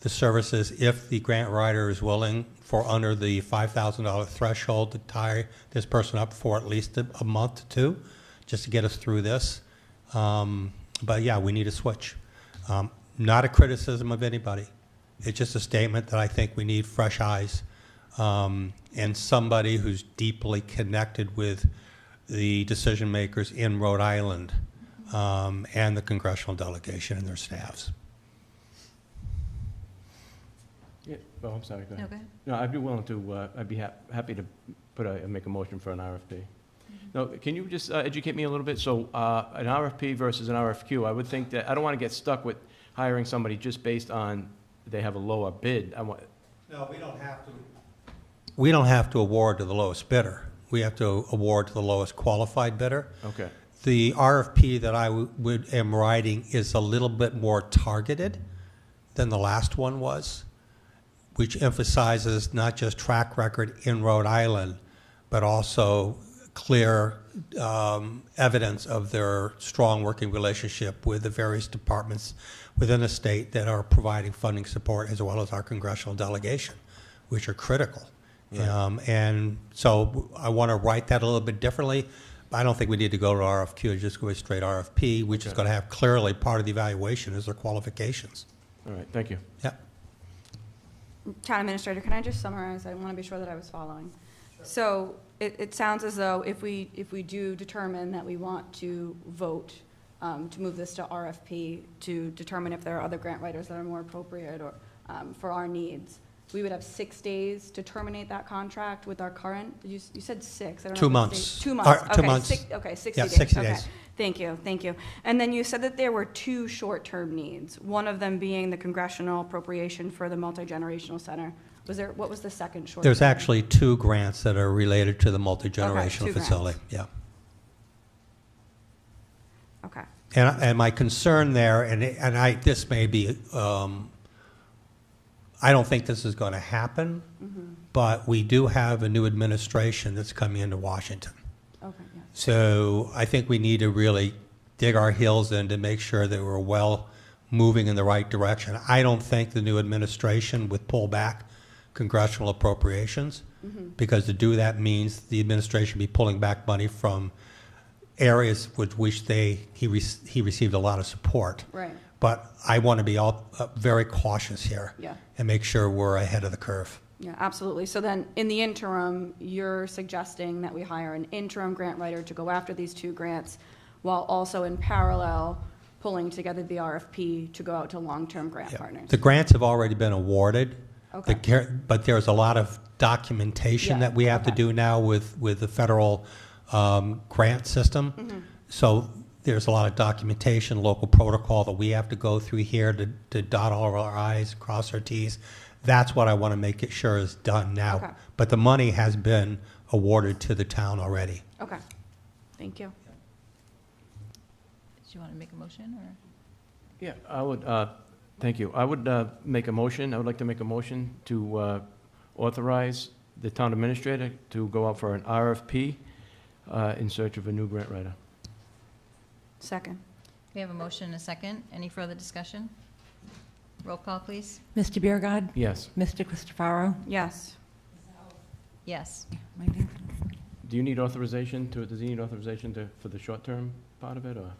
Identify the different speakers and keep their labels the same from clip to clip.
Speaker 1: the services if the grant writer is willing for under the $5,000 threshold to tie this person up for at least a, a month to two, just to get us through this. Um, but yeah, we need a switch. Um, not a criticism of anybody. It's just a statement that I think we need fresh eyes um, and somebody who's deeply connected with the decision makers in Rhode Island um, and the congressional delegation and their staffs.
Speaker 2: Yeah, oh, I'm sorry, go ahead.
Speaker 3: Okay.
Speaker 2: No, I'd be willing to, uh, I'd be hap- happy to put a, make a motion for an RFP. Now, can you just uh, educate me a little bit? So, uh, an RFP versus an RFQ, I would think that, I don't want to get stuck with hiring somebody just based on they have a lower bid. I want,
Speaker 1: No, we don't have to. We don't have to award to the lowest bidder. We have to award to the lowest qualified bidder.
Speaker 2: okay,
Speaker 1: The RFP that I w- would, am writing is a little bit more targeted than the last one was, which emphasizes not just track record in Rhode Island, but also clear um, evidence of their strong working relationship with the various departments within the state that are providing funding support, as well as our congressional delegation, which are critical. Um, And so I want to write that a little bit differently. I don't think we need to go to RFQ, just go straight RFP, which is
Speaker 2: Okay.
Speaker 1: going to have clearly part of the evaluation is their qualifications.
Speaker 2: all right, thank you.
Speaker 1: Yeah.
Speaker 3: Town Administrator, can I just summarize? I want to be sure that I was following. So it, it sounds as though if we, if we do determine that we want to vote um, to move this to RFP, to determine if there are other grant writers that are more appropriate or um, for our needs, we would have six days to terminate that contract with our current, you, s- you said six, I don't know.
Speaker 1: Two
Speaker 3: if it's
Speaker 1: months.
Speaker 3: days- Two
Speaker 1: Uh,
Speaker 3: months,
Speaker 1: two
Speaker 3: okay,
Speaker 1: months.
Speaker 3: six, okay, sixty
Speaker 1: Yeah,
Speaker 3: days.
Speaker 1: 60
Speaker 3: okay.
Speaker 1: days.
Speaker 3: Thank you, thank you. And then you said that there were two short-term needs, one of them being the congressional appropriation for the multi-generational center. Was there, what was the second short?
Speaker 1: There's actually two grants that are related to the multi-generational
Speaker 3: two grants.
Speaker 1: facility. Yeah.
Speaker 3: Okay,
Speaker 1: And, and my concern there, and, and I, this may be, um, I don't think this is going to happen,
Speaker 3: Mm-hmm.
Speaker 1: but we do have a new administration that's coming into Washington.
Speaker 3: okay, yes.
Speaker 1: So I think we need to really dig our heels in to make sure that we're well moving in the right direction. I don't think the new administration would pull back congressional appropriations because to do that means the administration be pulling back money from areas with which they he re- he received a lot of support.
Speaker 3: Right,
Speaker 1: But I want to be all uh, very cautious here
Speaker 3: yeah,
Speaker 1: and make sure we're ahead of the curve.
Speaker 3: yeah, absolutely. So then, in the interim, you're suggesting that we hire an interim grant writer to go after these two grants while also in parallel pulling together the RFP to go out to long-term grant
Speaker 1: Yeah.
Speaker 3: partners?
Speaker 1: The grants have already been awarded. The
Speaker 3: Okay.
Speaker 1: gar- But there's a lot of documentation
Speaker 3: Yeah,
Speaker 1: that we have to
Speaker 3: okay.
Speaker 1: do now with, with the federal um, grant
Speaker 3: Mm-hmm.
Speaker 1: system. So there's a lot of documentation, local protocol that we have to go through here to, to dot all of our i's, cross our t's. That's what I want to make it sure is done
Speaker 3: Okay.
Speaker 1: now. But the money has been awarded to the town already.
Speaker 3: Okay, thank you.
Speaker 4: Do you want to make a motion, or?
Speaker 2: Yeah, I would, uh, thank you. I would uh, make a motion, I would like to make a motion to uh, authorize the town administrator to go out for an RFP uh, in search of a new grant writer.
Speaker 3: Second.
Speaker 4: We have a motion and a second. Any further discussion? Roll call, please.
Speaker 5: Mr. Beer God,
Speaker 2: Yes.
Speaker 5: Mr. Christopherow.
Speaker 3: Yes.
Speaker 4: Yes.
Speaker 5: my name-
Speaker 2: Do you need authorization to, does he need authorization to, for the short-term part of it, or?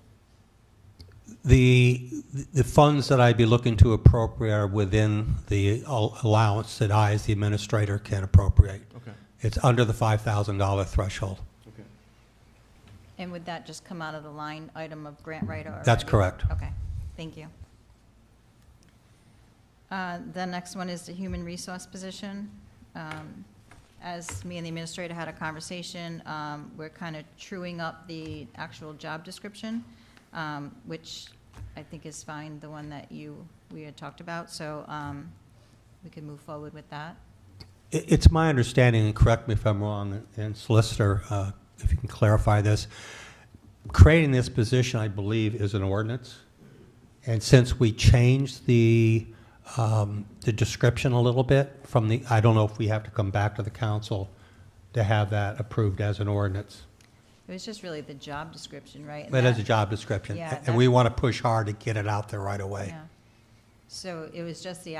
Speaker 1: The, the funds that I'd be looking to appropriate are within the al- allowance that I, as the administrator, can appropriate.
Speaker 2: Okay,
Speaker 1: It's under the $5,000 threshold.
Speaker 2: okay.
Speaker 4: And would that just come out of the line item of grant writer? already?
Speaker 1: That's correct.
Speaker 4: Okay, thank you. Uh, The next one is the human resource position. Um, As me and the administrator had a conversation, um, we're kind of truing up the actual job description, um, which I think is fine, the one that you, we had talked about, so um, we can move forward with that.
Speaker 1: I- It's my understanding, and correct me if I'm wrong, and Solicitor, uh, if you can clarify this, creating this position, I believe, is an ordinance. And since we changed the, um, the description a little bit from the, I don't know if we have to come back to the council to have that approved as an ordinance.
Speaker 4: It was just really the job description, right? And
Speaker 1: But as a
Speaker 4: that-
Speaker 1: job description.
Speaker 4: Yeah,
Speaker 1: And we want to push hard to get it out there right away.
Speaker 4: yeah. So it was just the